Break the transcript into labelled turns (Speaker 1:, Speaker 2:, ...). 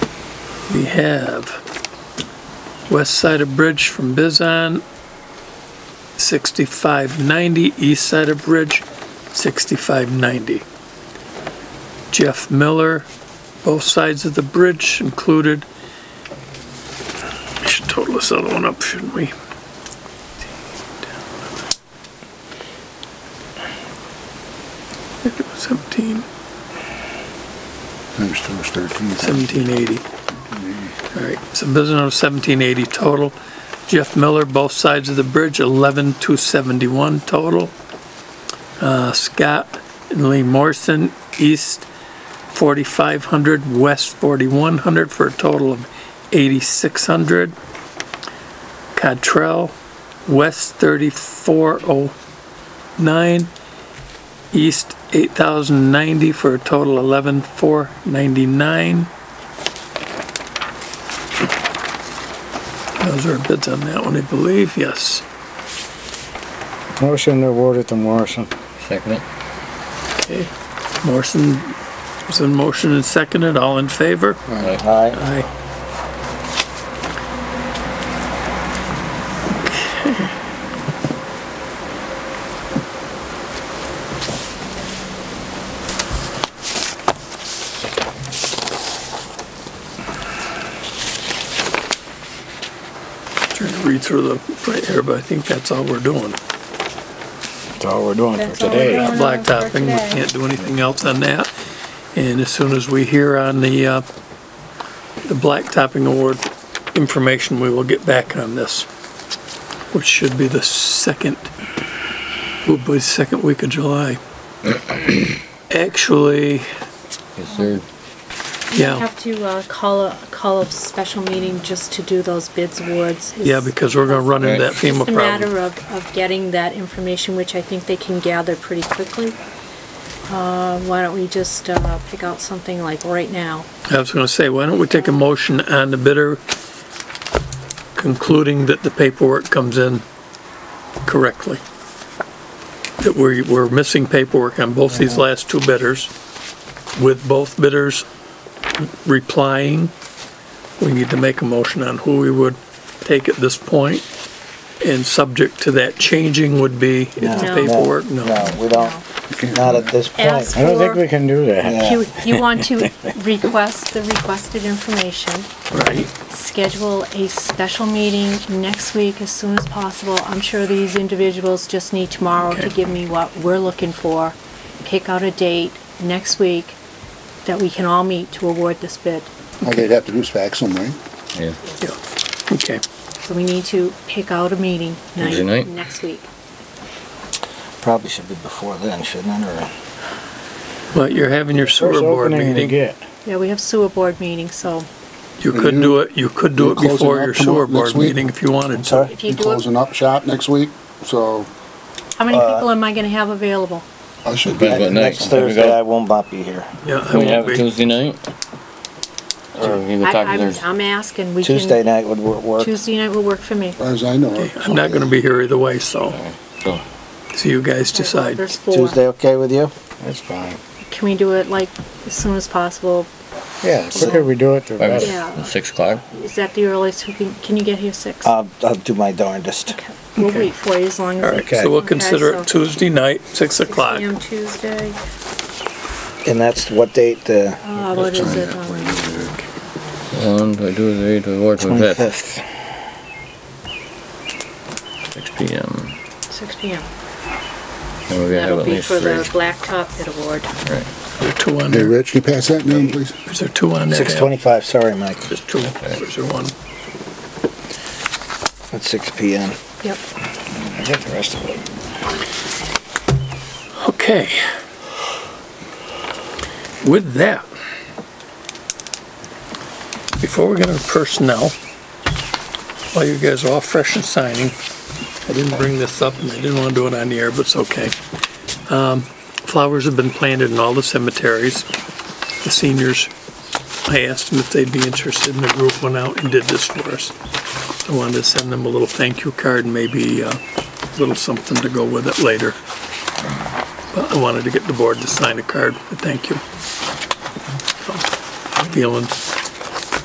Speaker 1: We have west side of bridge from Bizon, 6590, east side of bridge, 6590. Jeff Miller, both sides of the bridge included. We should total this other one up, shouldn't we? I think it was 17.
Speaker 2: It was it was 13.
Speaker 1: 1780. All right, so business of 1780 total. Jeff Miller, both sides of the bridge, 11,271 total. Uh, Scott and Lee Morrison, east 4,500, west 4,100, for a total of 8,600. Cottrell, west 3,409, east 8,090, for a total 11,499. Those are bids on that one, I believe, yes.
Speaker 3: Motion to award it to Morrison. Second it.
Speaker 1: Okay. Morrison is in motion and seconded, all in favor?
Speaker 3: Aye.
Speaker 1: Aye. Trying to read through the, right here, but I think that's all we're doing.
Speaker 3: That's all we're doing for
Speaker 4: That's all we're
Speaker 3: today.
Speaker 4: doing.
Speaker 1: Not
Speaker 4: Going on for
Speaker 1: blacktopping, we
Speaker 4: today.
Speaker 1: can't do anything else on that. And as soon as we hear on the, uh, the blacktopping award information, we will get back on this, which should be the second, will be the second week of July. Actually,
Speaker 3: Yes, sir.
Speaker 1: yeah,
Speaker 4: Have to uh, call a, call a special meeting just to do those bids awards.
Speaker 1: yeah, because we're gonna run into that
Speaker 4: It's
Speaker 1: FEMA
Speaker 4: just a
Speaker 1: problem.
Speaker 4: matter of, of getting that information, which I think they can gather pretty quickly. Uh, Why don't we just uh, pick out something like right now?
Speaker 1: I was gonna say, why don't we take a motion on the bidder concluding that the paperwork comes in correctly? That we're, we're missing paperwork on both these last two bidders, with both bidders replying. We need to make a motion on who we would take at this point, and subject to that changing would be if the
Speaker 4: No.
Speaker 1: paperwork, no.
Speaker 5: No, we don't, not at this point.
Speaker 4: Ask
Speaker 3: I don't think we
Speaker 4: for,
Speaker 3: can do that.
Speaker 4: you, you want to request the requested information.
Speaker 1: Right,
Speaker 4: schedule a special meeting next week as soon as possible. I'm sure these individuals just need tomorrow to
Speaker 1: Okay.
Speaker 4: give me what we're looking for. Pick out a date next week that we can all meet to award this bid.
Speaker 2: All they'd have to do is fax them, right?
Speaker 6: Yeah,
Speaker 1: yeah, okay.
Speaker 4: So we need to pick out a meeting
Speaker 6: Tuesday
Speaker 4: night
Speaker 6: night?
Speaker 4: next week.
Speaker 5: Probably should be before then, shouldn't it, or?
Speaker 1: Well, you're having your sewer
Speaker 3: First
Speaker 1: board
Speaker 3: opening we
Speaker 1: meeting.
Speaker 3: get.
Speaker 4: Yeah, we have sewer board meeting, so
Speaker 1: You could do it, you could do it
Speaker 2: Closing
Speaker 1: before
Speaker 2: up
Speaker 1: your
Speaker 2: tomorrow-
Speaker 1: sewer board
Speaker 2: next week?
Speaker 1: meeting if you wanted to.
Speaker 5: Sorry?
Speaker 4: if you
Speaker 2: You're
Speaker 4: do it,
Speaker 2: closing up shop next week, so
Speaker 4: how many
Speaker 5: Uh,
Speaker 4: people am I gonna have available?
Speaker 2: I should be.
Speaker 6: Depends what night.
Speaker 5: Next
Speaker 6: There we
Speaker 5: Thursday, I
Speaker 6: go.
Speaker 5: will not be here.
Speaker 1: Yeah, I
Speaker 6: Can we
Speaker 1: won't
Speaker 6: have it
Speaker 1: be.
Speaker 6: Tuesday night? Or we can
Speaker 4: I-
Speaker 6: talk to
Speaker 4: I'm,
Speaker 6: there's-
Speaker 4: I'm asking, we
Speaker 5: Tuesday
Speaker 4: can,
Speaker 5: night would wor- work.
Speaker 4: Tuesday night will work for me.
Speaker 2: As I know. it.
Speaker 1: I'm not gonna be here either way, so,
Speaker 6: so,
Speaker 1: so you guys decide.
Speaker 4: There's four.
Speaker 5: Tuesday, okay with you?
Speaker 3: That's fine.
Speaker 4: Can we do it like as soon as possible?
Speaker 3: Yeah, the quicker we do it, the
Speaker 6: probably
Speaker 3: better.
Speaker 4: Yeah.
Speaker 6: Six o'clock?
Speaker 4: Is that the earliest we can, can you get here six?
Speaker 5: I'll, I'll do my darndest.
Speaker 4: Okay, We'll wait for you as long as.
Speaker 1: All right, so we'll
Speaker 4: Okay,
Speaker 1: consider
Speaker 4: so
Speaker 1: it Tuesday night, six
Speaker 4: 6
Speaker 1: o'clock.
Speaker 4: PM Tuesday,
Speaker 5: And that's what date, the
Speaker 4: uh, what is it, um,
Speaker 6: One, do I do it, eight, do I work with that?
Speaker 5: twenty-fifth?
Speaker 6: Six P M.
Speaker 4: six P M.
Speaker 6: And we're gonna have
Speaker 4: That'll
Speaker 6: at
Speaker 4: be
Speaker 6: least
Speaker 4: for the
Speaker 6: three.
Speaker 4: Blacktop Bid Award.
Speaker 6: Right.
Speaker 1: There are two on
Speaker 2: Hey,
Speaker 1: there.
Speaker 2: Rich, can you pass that down, please?
Speaker 1: Is there two on there?
Speaker 5: Six twenty-five, sorry, Mike.
Speaker 1: There's two, there's one.
Speaker 5: At six P M.
Speaker 4: Yep.
Speaker 5: I got the rest of it.
Speaker 1: Okay. With that, before we get into personnel, while you guys are all fresh and signing, I didn't bring this up and I didn't want to do it on the air, but it's okay. Um, Flowers have been planted in all the cemeteries. The seniors, I asked them if they'd be interested and the group went out and did this for us. I wanted to send them a little thank you card and maybe uh, a little something to go with it later. But I wanted to get the board to sign a card, but thank you. So, Feeling